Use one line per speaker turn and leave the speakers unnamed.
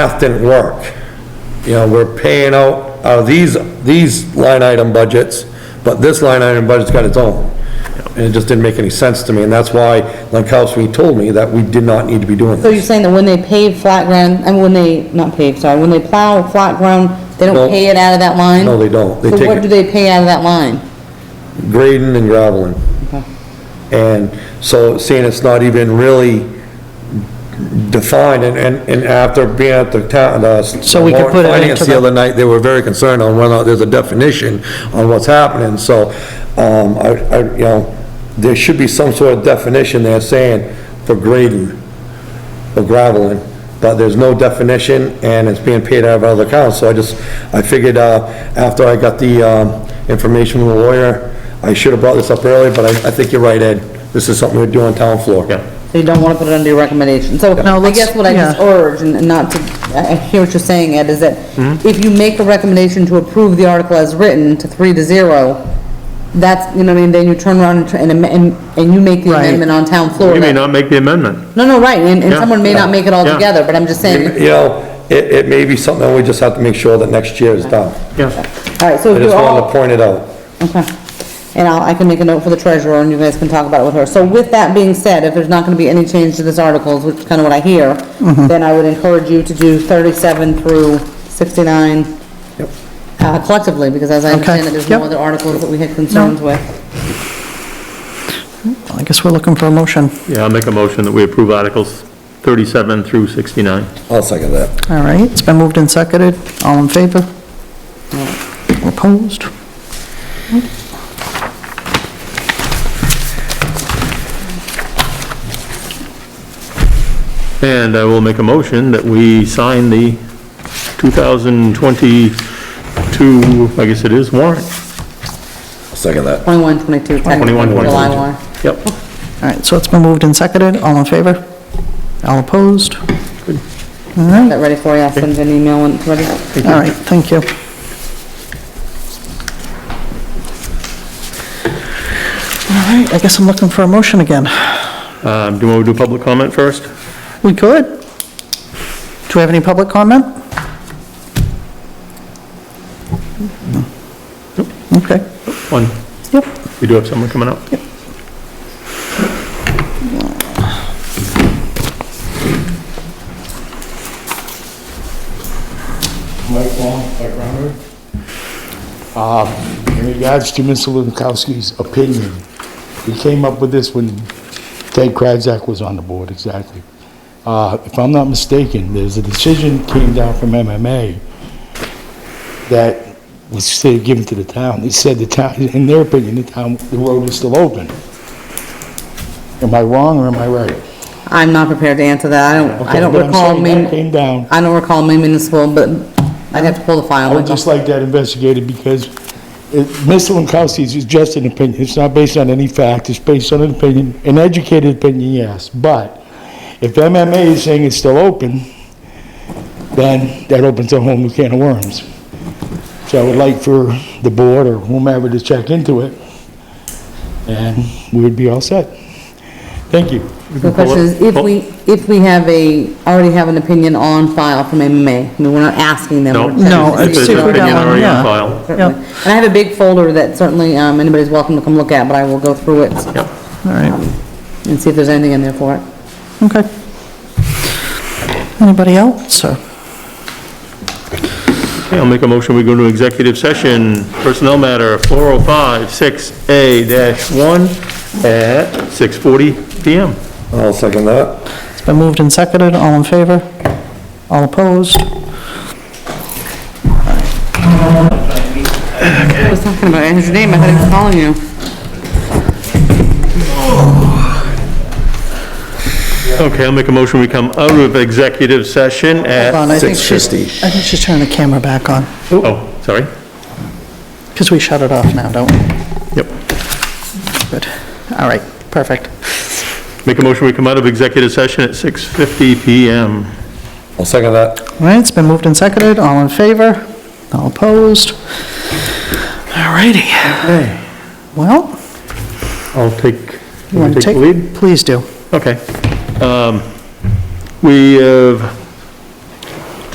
math didn't work. You know, we're paying out, uh, these, these line item budgets, but this line item budget's got its own. And it just didn't make any sense to me, and that's why Lankowski told me that we did not need to be doing
So you're
this.
saying that when they pave flat ground, and when they, not pave, sorry, when they plow flat ground, they
No.
don't pay it out of that line?
No, they don't. They
So
take
what
it-
do they pay out of that line?
Grading and graveling.
Okay.
And so seeing it's not even really defined, and, and and after being at the town, the.
So we can put it
Warren
into
Finance the
the-
other night, they were very concerned on whether there's a definition on what's happening, so, um, I, I, you know, there should be some sort of definition there saying for grading, for graveling, but there's no definition, and it's being paid out of other accounts, so I just, I figured, uh, after I got the, um, information from the lawyer, I should have brought this up earlier, but I, I think you're right, Ed, this is something we do on town floor. Yeah.
So you don't wanna put it under your recommendation. So
No,
I
let's-
guess what I just
yeah.
urge, and and not to, I I hear what you're saying, Ed, is that
Mm-hmm.
if you make a recommendation to approve the article as written to three to zero, that's, you know what I mean, then you turn around and tr- and, am- and, and you make the
Right.
amendment on town floor.
You may
that-
not make the amendment.
No, no, right, and, and
Yeah.
someone may not make it all
Yeah.
together, but I'm just saying,
You know, it, it may be something we just have to make sure that next year is done.
Yeah,
all right, so
I
if you're
just
all.
wanted to point it out.
Okay. And I'll, I can make a note for the treasurer, and you guys can talk about it with her. So with that being said, if there's not gonna be any change to this articles, which is kinda what I hear,
Mm-hmm.
then I would encourage you to do thirty-seven through sixty-nine uh, collectively, because as I understand it, there's no
yep.
other articles that we had concerns with.
I guess we're looking for a motion.
yeah, I'll make a motion that we approve Articles 37 through 69.
I'll second that.
All right, it's been moved and seconded. All in favor? Opposed?
And I will make a motion that we sign the 2022, I guess it is, warrant.
Second that.
Twenty-one, twenty-two, technically,
21,
July one.
22. Yep.
All right, so it's been moved and seconded. All in favor? All opposed?
Get that ready for you, I'll send you an email when it's ready.
All right, thank you. All right, I guess I'm looking for a motion again.
Um, Do you want to do public comment first?
We could. Do we have any public comment? Okay,
One,
yep.
we do have someone coming up.
Mike Long, Mike Rondo. Uh, In regards to Mr. Lukowski's opinion, he came up with this when Ted Krajzak was on the board, exactly. Uh, If I'm not mistaken, there's a decision came down from MMA that was still given to the town. They said the town, in their opinion, the town, the road was still open. Am I wrong or am I right?
I'm not prepared to answer that, I don't, I
Okay,
don't
but I'm
recall,
saying that
main
Came down.
I don't recall main municipal, but I'd have to pull the
I
file.
would just like that investigated because it- Mr. Lankowski is just an opinion. It's not based on any fact. It's based on an opinion, an educated opinion, yes. But if MMA is saying it's still open, then that opens a whole new can of worms. So I would like for the board or whomever to check into it, and we would be all set. Thank you.
The question is, if we, if we have a, already have an opinion on file from MMA, I mean, we're not asking them.
No?
we're checking
No,
to see
it's
if they
There's an
super
already
opinion
have
already
down,
on
yeah.
file.
one.
Yep.
And I have a big folder that certainly, um, anybody's welcome to come look at, but I will go through it
Yep.
All right,
and see if there's anything in there for it.
okay. Anybody else, or?
Okay, I'll make a motion, we go to executive session, personnel matter, 4056A-1 at 6:40 PM.
I'll second that.
It's been moved and seconded, all in favor? All opposed?
I was talking about, I had your name, I had it calling you.
Okay, I'll make a motion, we come out of executive session
Hold
at,
on, I think she's-
6:50.
I think she's turning the camera back on,
oh, sorry.
because we shut it off now, don't we?
Yep.
Good, all right, perfect.
Make a motion, we come out of executive session at 6:50 PM.
I'll second that.
All right, it's been moved and seconded, all in favor? All opposed? All righty. Well,
I'll take,
you want to
take the lead?
take, please do.
Okay. Um, We have